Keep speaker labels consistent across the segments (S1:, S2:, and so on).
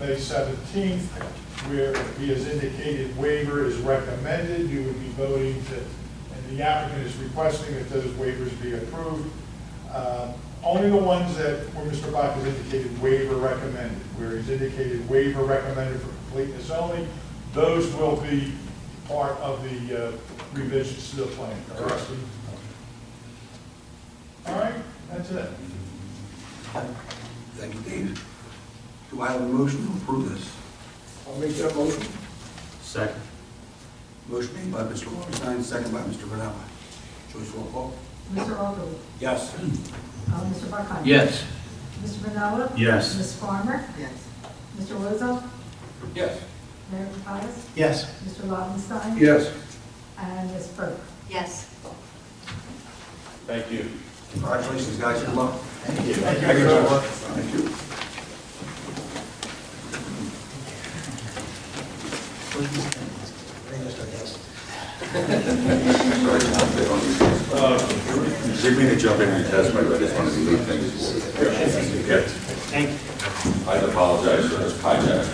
S1: May 17th, where he has indicated waiver is recommended. You would be voting to, and the applicant is requesting that those waivers be approved. Uh, Only the ones that, where Mr. Bach has indicated waiver recommended, where he's indicated waiver recommended for completeness only, those will be part of the uh, revisions to the plan.
S2: Correct.
S1: All right, that's it.
S2: Thank you, Dave. Do I have a motion to approve this?
S3: I'll make that motion.
S4: Second.
S2: Motion made by Mr. Longstein, second by Mr. Vanella. Joyce, roll call.
S5: Mr. Ogul?
S2: Yes.
S5: Uh, Mr. Barkani?
S4: Yes.
S5: Mr. Vinella?
S4: Yes.
S5: Ms. Farmer?
S6: yes,
S5: Mr. Lozo?
S2: Yes.
S5: Mayor Pataglia?
S4: Yes.
S5: Mr. Lobenstein?
S3: Yes.
S5: And Ms. Burke?
S6: yes.
S7: Thank you.
S2: Congratulations, guys, good luck. Thank you.
S1: Thank you.
S2: Thank you.
S7: Give me to jump in and test my, I just wanted to leave things. Thank you. I apologize for this hijack.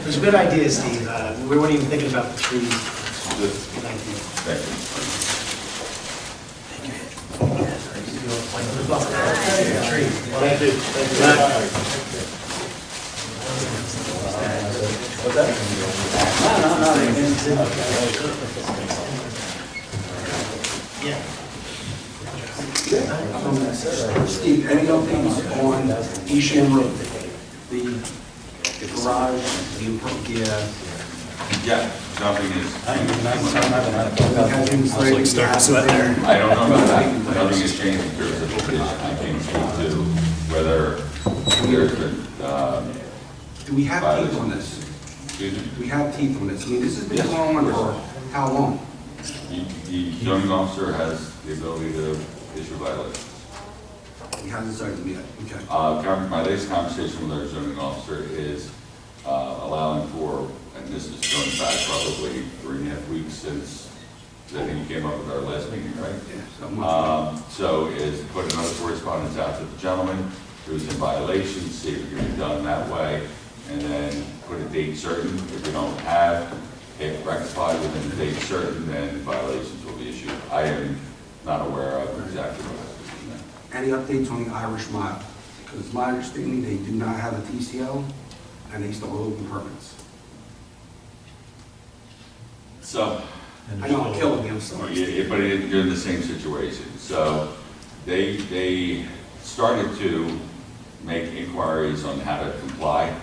S8: It was a good idea, Steve. Uh, We weren't even thinking about the trees.
S7: Just-
S8: Thank you.
S7: Thank you.
S2: Steve, any updates on Eastham Road? The the garage, the, appro- the, uh,
S7: Yeah, jumping is,
S2: have been slightly there.
S7: I don't know about that, nothing is changing, there's a location, I can't speak to whether there's been, um,
S2: Do we have teeth on this?
S7: excuse me,
S2: Do we have teeth on this? I mean, this has been
S7: Yes.
S2: going on for how long?
S7: the- the zoning officer has the ability to issue violations.
S2: We haven't decided yet, okay.
S7: Uh, con- My latest conversation with our zoning officer is uh, allowing for, and this is going back probably three and a half weeks since, I think you came up with our last meeting, right?
S2: Yeah, so I'm not-
S7: Um, So is put another correspondence out to the gentleman who's in violation, see if it can be done that way, and then put a date certain. If we don't have it rectified within the date certain, then violations will be issued. I am not aware of exactly what happened. no.
S2: Any updates on the Irish Mile? Because it's my understanding they do not have a TCO and they still hold open permits.
S7: So
S2: I know I'm killing you, I'm sorry.
S7: Oh, Yeah, yeah, but it- you're in the same situation. So they, they started to make inquiries on how to comply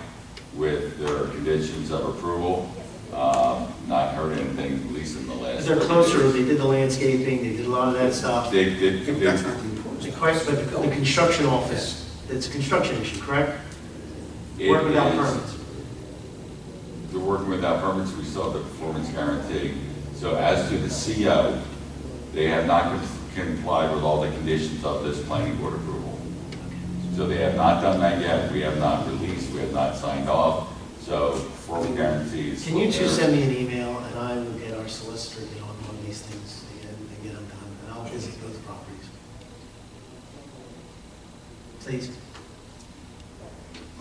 S7: with their conditions of approval. Um, Not heard anything, at least in the last.
S8: Because they're closer, they did the landscaping, they did a lot of that stuff.
S7: They did,
S2: Yeah, but
S7: they
S2: That's not the important.
S8: The question, but the construction office, it's a construction issue, correct?
S7: It
S8: Work without
S7: is-
S8: permits.
S7: They're working without permits, we still have the performance guarantee. So as to the CO, they have not complied with all the conditions of this planning board approval. So they have not done that yet, we have not released, we have not signed off, so formal guarantees.
S8: Can you two send me an email, and I will get our solicitor to get on one of these things and and get them done, and I'll visit both properties. Please.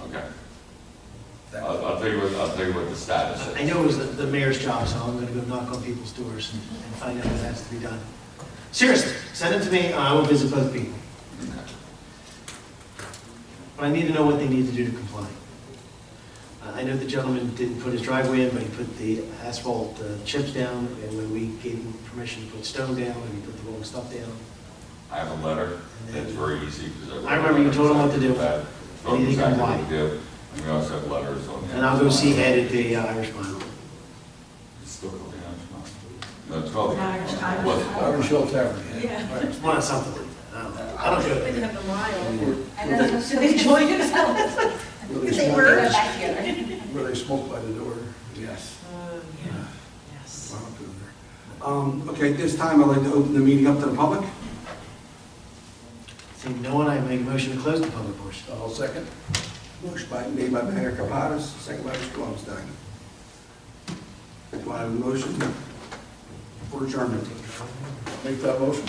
S7: Okay. I'll, I'll tell you what, I'll tell you what the status
S8: I
S7: is.
S8: know it was the- the mayor's job, so I'm gonna go knock on people's doors and and find out what has to be done. Seriously, send it to me, and I will visit both people. But I need to know what they need to do to comply. Uh, I know the gentleman didn't put his driveway in, but he put the asphalt uh, chips down, and when we gave him permission to put stone down, and he put the wrong stuff down.
S7: I have a letter that's very easy. 'cause wrote
S8: I remember you told him what to do.
S7: that, Told
S8: And
S7: him
S8: he
S7: exactly what
S8: complied.
S7: to do, and we also have letters on the.
S8: And I'll go see Ed at the uh, Irish Mile.
S7: It's still called the Irish Mile. No, it's called the Irish
S5: Irish-
S7: Mile.
S5: Irish-
S7: What's it called?
S3: Irish Hill Tavern.
S6: Yeah.
S8: It's one of something, I don't know. I don't go there.
S6: have the mile.
S5: And then-
S6: Should they join us?
S3: Where they
S6: If they
S3: smoke-
S6: were. Back here.
S3: Where they smoke by the door.
S2: Yes.
S6: Yes.
S2: Wow, good there. Um, okay, at this time, I'd like to open the meeting up to the public.
S8: Seeing no one, I make a motion to close the public portion.
S3: I'll second.
S2: Motion by, made by Mayor Kapadas, second by Mr. Longstein. Do I have a motion for adjournment?
S3: Make that motion.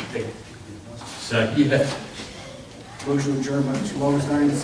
S4: Second.
S2: Motion adjourned by Mr. Longstein,